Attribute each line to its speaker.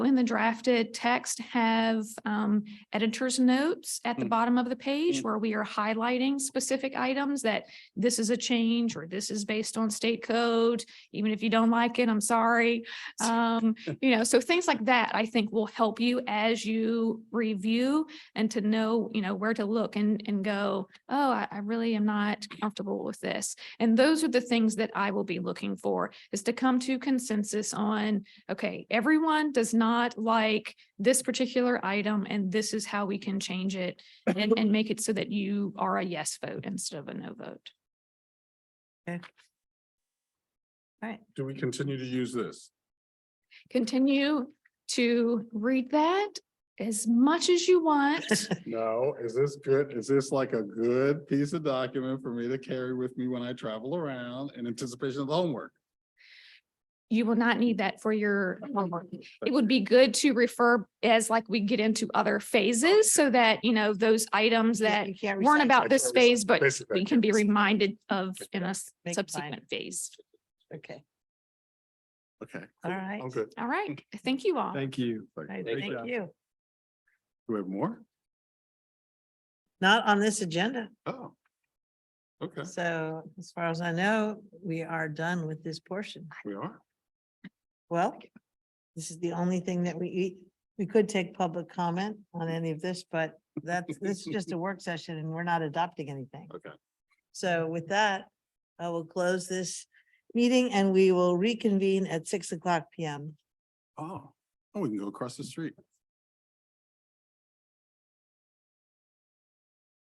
Speaker 1: in the drafted text have um, editor's notes at the
Speaker 2: Mm.
Speaker 1: bottom of the page
Speaker 2: Mm.
Speaker 1: where we are highlighting specific items that this is a change or this is based on state code. Even if you don't like it, I'm sorry. Um, You know, so things like that, I think will help you as you review and to know, you know, where to look and, and go, oh, I, I really am not comfortable with this. And those are the things that I will be looking for is to come to consensus on, okay, everyone does not like this particular item and this is how we can change it and, and make it so that you are a yes vote instead of a no vote.
Speaker 3: Do we continue to use this?
Speaker 1: Continue to read that as much as you want.
Speaker 3: No, is this good? Is this like a good piece of document for me to carry with me when I travel around in anticipation of the homework?
Speaker 1: You will not need that for your homework. It would be good to refer as like we get into other phases so that, you know, those items that weren't about this
Speaker 3: That's what we
Speaker 1: phase, but
Speaker 3: basically
Speaker 1: we can be
Speaker 3: did.
Speaker 1: reminded of in a s-
Speaker 2: Make it
Speaker 1: subsequent phase.
Speaker 2: Okay,
Speaker 3: Okay.
Speaker 2: all right.
Speaker 3: I'm good.
Speaker 1: All right. Thank you all.
Speaker 3: Thank you.
Speaker 2: All right,
Speaker 3: Great
Speaker 2: Thank
Speaker 3: job.
Speaker 2: you.
Speaker 3: Do we have more?
Speaker 2: Not on this agenda.
Speaker 3: Oh. Okay,
Speaker 2: So as far as I know, we are done with this portion.
Speaker 3: we are.
Speaker 2: Well, this is the only thing that we eat. We could take public comment on any of this, but that's, this is just a work session and we're not adopting anything.
Speaker 3: Okay.
Speaker 2: So with that, I will close this meeting and we will reconvene at six o'clock PM.
Speaker 3: Oh, oh, we can go across the street.